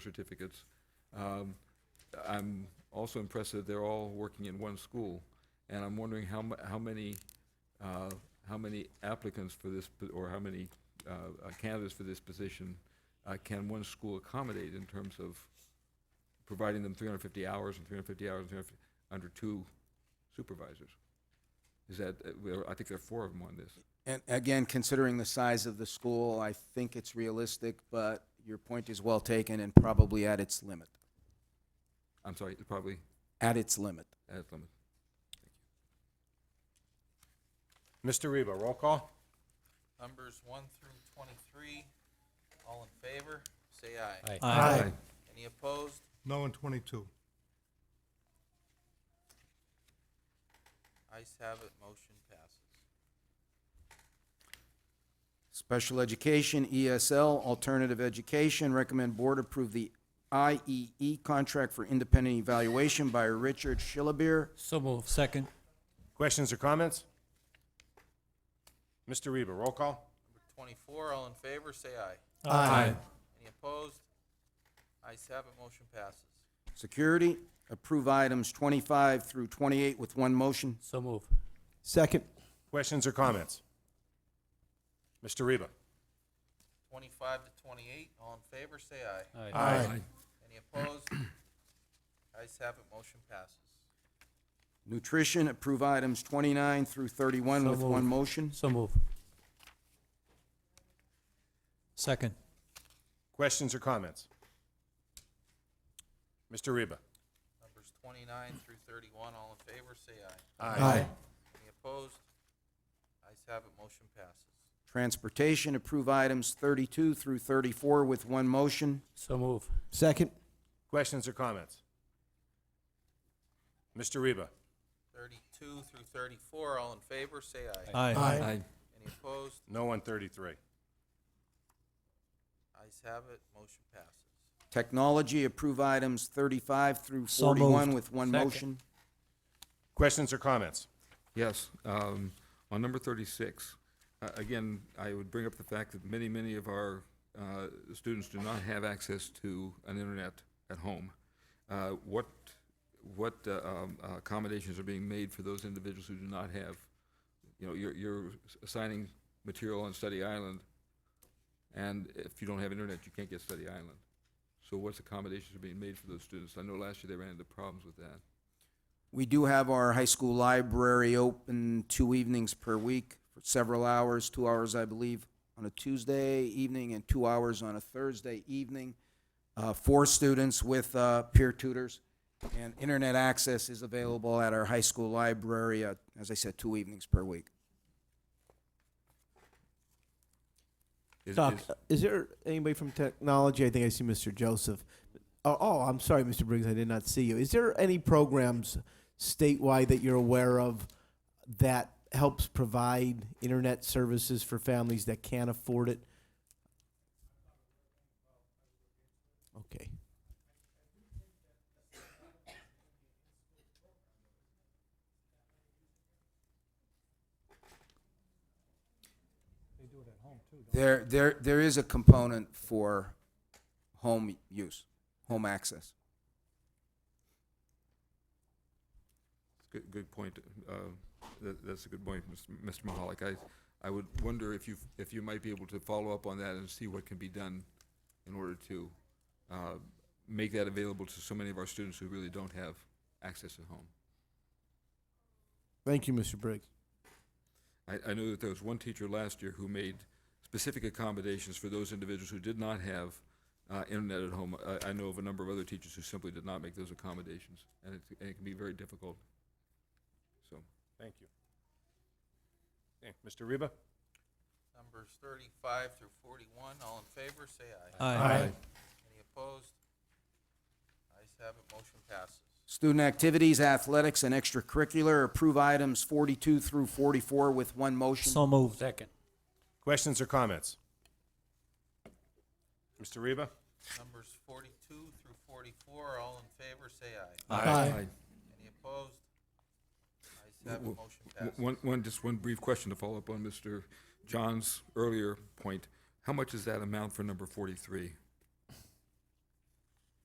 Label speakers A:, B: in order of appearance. A: certificates. Um, I'm also impressed that they're all working in one school, and I'm wondering how, mu- how many, uh, how many applicants for this, po- or how many uh, uh, candidates for this position uh, can one school accommodate in terms of providing them 350 hours and 350 hours and 350 under two supervisors? Is that, uh, well, I think there are four of them on this.
B: And again, considering the size of the school, I think it's realistic, but your point is well taken and probably at its limit,
A: I'm sorry, it's probably uh,
B: at its limit.
A: at its limit.
C: Mr. Reba, roll call?
D: Numbers one through twenty-three, all in favor, say aye.
A: Aye.
D: Any opposed?
E: No in twenty-two.
D: Ayes have it, motion passes.
B: Special education, ESL, alternative education, recommend board approve the IEE contract for independent evaluation by Richard Schillebeer.
F: So move. Second.
C: Questions or comments? Mr. Reba, roll call?
D: Number twenty-four, all in favor, say aye.
F: Aye.
D: Any opposed? Ayes have it, motion passes.
B: Security, approve items twenty-five through twenty-eight with one motion.
F: So move.
G: Second.
C: Questions or comments? Mr. Reba?
D: Twenty-five to twenty-eight, all in favor, say aye.
F: Aye.
D: Any opposed? Ayes have it, motion passes.
B: Nutrition, approve items twenty-nine through thirty-one
F: So
B: with one
F: moved.
B: motion.
F: So move. Second.
C: Questions or comments? Mr. Reba?
D: Numbers twenty-nine through thirty-one, all in favor, say aye.
G: Aye.
D: Any opposed? Ayes have it, motion passes.
B: Transportation, approve items thirty-two through thirty-four with one motion.
F: So move.
G: Second.
C: Questions or comments? Mr. Reba?
D: Thirty-two through thirty-four, all in favor, say aye.
F: Aye.
D: Any opposed?
C: No on 33.
D: Ayes have it, motion passes.
B: Technology, approve items thirty-five through
F: So moved.
B: forty-one with one
F: Second.
B: motion.
C: Questions or comments?
A: Yes, um, on number thirty-six, uh, again, I would bring up the fact that many, many of our, uh, students do not have access to an internet at home. Uh, what, what uh, um, accommodations are being made for those individuals who do not have, you know, you're, you're assigning material on Study Island, and if you don't have internet, you can't get Study Island. So what's accommodations are being made for those students? I know last year they ran into problems with that.
B: We do have our high school library open two evenings per week for several hours, two hours, I believe, on a Tuesday evening and two hours on a Thursday evening uh, for students with uh, peer tutors. And internet access is available at our high school library, uh, as I said, two evenings per week.
A: Is-
G: Doc,
A: is-
G: uh, is there anybody from technology? I think I see Mr. Joseph. Oh, oh, I'm sorry, Mr. Briggs, I did not see you. Is there any programs statewide that you're aware of that helps provide internet services for families that can't afford it? Okay.
B: There, there, there is a component for home use, home access.
A: Good, good point. uh, that- That's a good point, Mr. Mr. Mahalik. I, I would wonder if you, if you might be able to follow up on that and see what can be done in order to uh, make that available to so many of our students who really don't have access at home.
G: Thank you, Mr. Briggs.
A: I, I know that there was one teacher last year who made specific accommodations for those individuals who did not have uh, internet at home. I, I know of a number of other teachers who simply did not make those accommodations, and it, and it can be very difficult. So,
C: Thank you. Okay, Mr. Reba?
D: Numbers thirty-five through forty-one, all in favor, say aye.
F: Aye.
D: Any opposed? Ayes have it, motion passes.
B: Student activities, athletics, and extracurricular, approve items 42 through 44 with one motion.
F: So move. Second.
C: Questions or comments? Mr. Reba?
D: Numbers forty-two through forty-four, all in favor, say aye.
G: Aye.
D: Any opposed? Ayes have it,
A: W-
D: motion passes.
A: One, one, just one brief question to follow up on Mr. John's earlier point. How much is that amount for number forty-three?